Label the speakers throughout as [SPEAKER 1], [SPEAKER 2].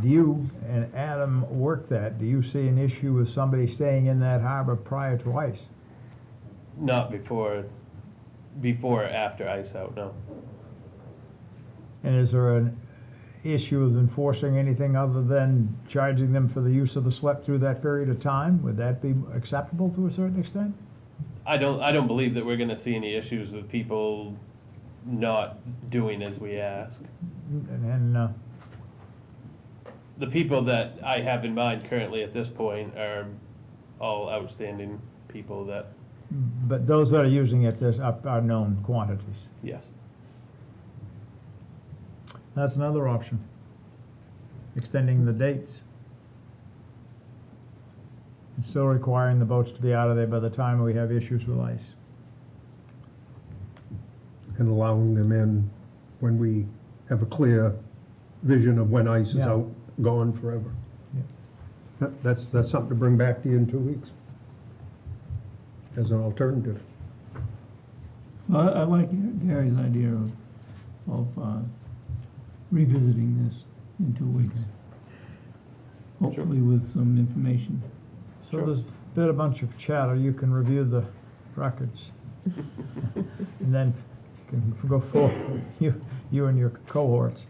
[SPEAKER 1] Do you and Adam work that? Do you see an issue with somebody staying in that harbor prior to ice?
[SPEAKER 2] Not before, before or after ice out, no.
[SPEAKER 1] And is there an issue of enforcing anything other than charging them for the use of the slip through that period of time? Would that be acceptable to a certain extent?
[SPEAKER 2] I don't, I don't believe that we're gonna see any issues with people not doing as we ask.
[SPEAKER 1] And, and uh,
[SPEAKER 2] The people that I have in mind currently at this point are all outstanding people that,
[SPEAKER 1] but those that are using it there's are, are known quantities.
[SPEAKER 2] yes.
[SPEAKER 1] That's another option. Extending the dates. And still requiring the boats to be out of there by the time we have issues with ice.
[SPEAKER 3] and allowing them in when we have a clear vision of when ice is
[SPEAKER 1] Yeah.
[SPEAKER 3] out, gone forever.
[SPEAKER 1] Yeah.
[SPEAKER 3] That- That's, that's something to bring back to you in two weeks as an alternative.
[SPEAKER 4] Well, I I like Gary's idea of, of uh, revisiting this in two weeks. Hopefully with some information.
[SPEAKER 1] So
[SPEAKER 2] Sure.
[SPEAKER 1] there's been a bunch of chatter, you can review the records. And then you can go forth, you, you and your cohorts.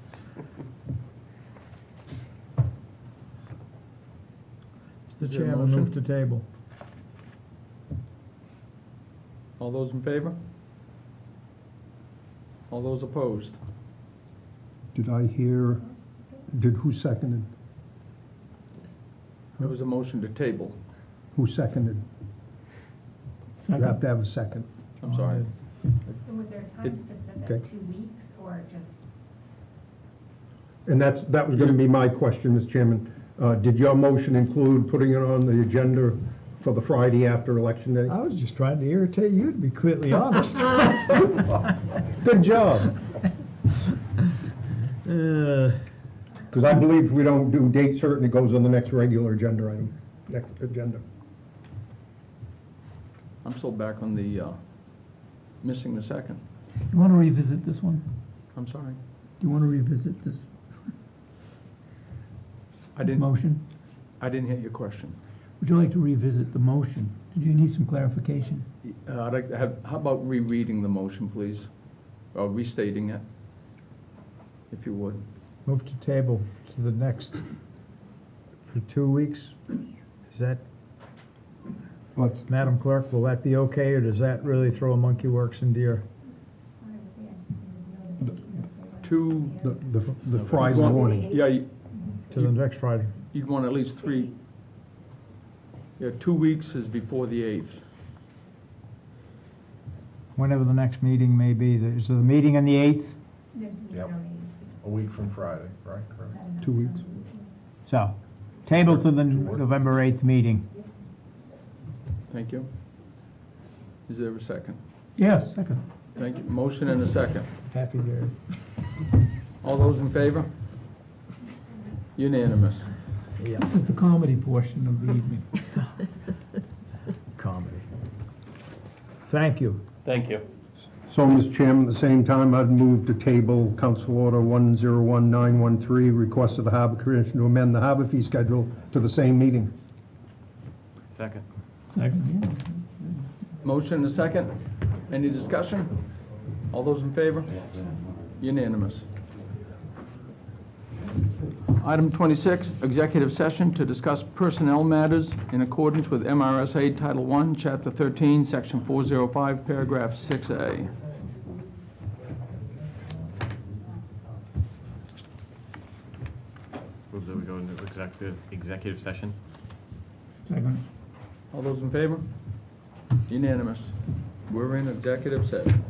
[SPEAKER 5] Is
[SPEAKER 1] Mr.
[SPEAKER 5] there a
[SPEAKER 1] Chairman, move to
[SPEAKER 5] motion?
[SPEAKER 1] table.
[SPEAKER 5] All those in favor? All those opposed?
[SPEAKER 3] Did I hear, did, who seconded?
[SPEAKER 5] There was a motion to table.
[SPEAKER 3] Who seconded? You have
[SPEAKER 4] Second,
[SPEAKER 3] to have a second.
[SPEAKER 5] I'm sorry.
[SPEAKER 1] Um,
[SPEAKER 6] And was there a
[SPEAKER 5] It-
[SPEAKER 6] time specific,
[SPEAKER 3] okay.
[SPEAKER 6] two weeks or just?
[SPEAKER 3] And that's, that was gonna be my question, Mr. Chairman. Uh, did your motion include putting it on the agenda for the Friday after Election Day?
[SPEAKER 1] I was just trying to irritate you, to be completely honest.
[SPEAKER 3] Good job.
[SPEAKER 1] Uh,
[SPEAKER 3] Because I believe if we don't do date certain, it goes on the next regular agenda item, next agenda.
[SPEAKER 5] I'm still back on the, uh, missing the second.
[SPEAKER 4] you want to revisit this one?
[SPEAKER 5] I'm sorry.
[SPEAKER 4] Do you want to revisit this
[SPEAKER 5] I didn't,
[SPEAKER 4] motion?
[SPEAKER 5] I didn't hear your question.
[SPEAKER 4] Would you like to revisit the motion? Do you need some clarification?
[SPEAKER 5] Uh, I'd like to have, how about rereading the motion, please? Or restating it, if you would.
[SPEAKER 1] Move to table to the next, for two weeks. Is that,
[SPEAKER 3] Let's-
[SPEAKER 1] Madam Clerk, will that be okay, or does that really throw a monkey works into your?
[SPEAKER 6] I don't think I just need to know that you
[SPEAKER 5] Two,
[SPEAKER 6] were-
[SPEAKER 3] The, the the
[SPEAKER 5] you'd
[SPEAKER 3] Friday
[SPEAKER 5] want-
[SPEAKER 3] morning.
[SPEAKER 5] Yeah, you-
[SPEAKER 1] to the next Friday?
[SPEAKER 5] you'd want at least three. Yeah, two weeks is before the eighth.
[SPEAKER 1] whenever the next meeting may be. Is the meeting on the 8th?
[SPEAKER 6] There's, you
[SPEAKER 7] Yep.
[SPEAKER 6] don't need.
[SPEAKER 7] A week from Friday, right?
[SPEAKER 6] is
[SPEAKER 7] Correct.
[SPEAKER 6] that enough
[SPEAKER 3] Two weeks.
[SPEAKER 6] time?
[SPEAKER 1] So, table to the November 8th meeting.
[SPEAKER 5] Thank you. Is there a second?
[SPEAKER 4] Yes, second.
[SPEAKER 5] Thank you. Motion and a second.
[SPEAKER 1] Happy Gary.
[SPEAKER 5] All those in favor? Unanimous.
[SPEAKER 4] This is the comedy portion of the evening.
[SPEAKER 1] Comedy. Thank you.
[SPEAKER 2] Thank you.
[SPEAKER 3] So, Mr. Chairman, at the same time, I'd move to table Council Order 101913, request of the Harbor Commission to amend the harbor fee schedule to the same meeting.
[SPEAKER 2] Second.
[SPEAKER 4] Second, yeah.
[SPEAKER 5] Motion and a second. Any discussion? All those in favor? Unanimous. Item 26, executive session to discuss personnel matters in accordance with MRSA Title I, Chapter 13, Section 405, Paragraph 6A.
[SPEAKER 8] Move that we go into executive, executive session.
[SPEAKER 4] Second.
[SPEAKER 5] All those in favor? Unanimous. We're in executive session.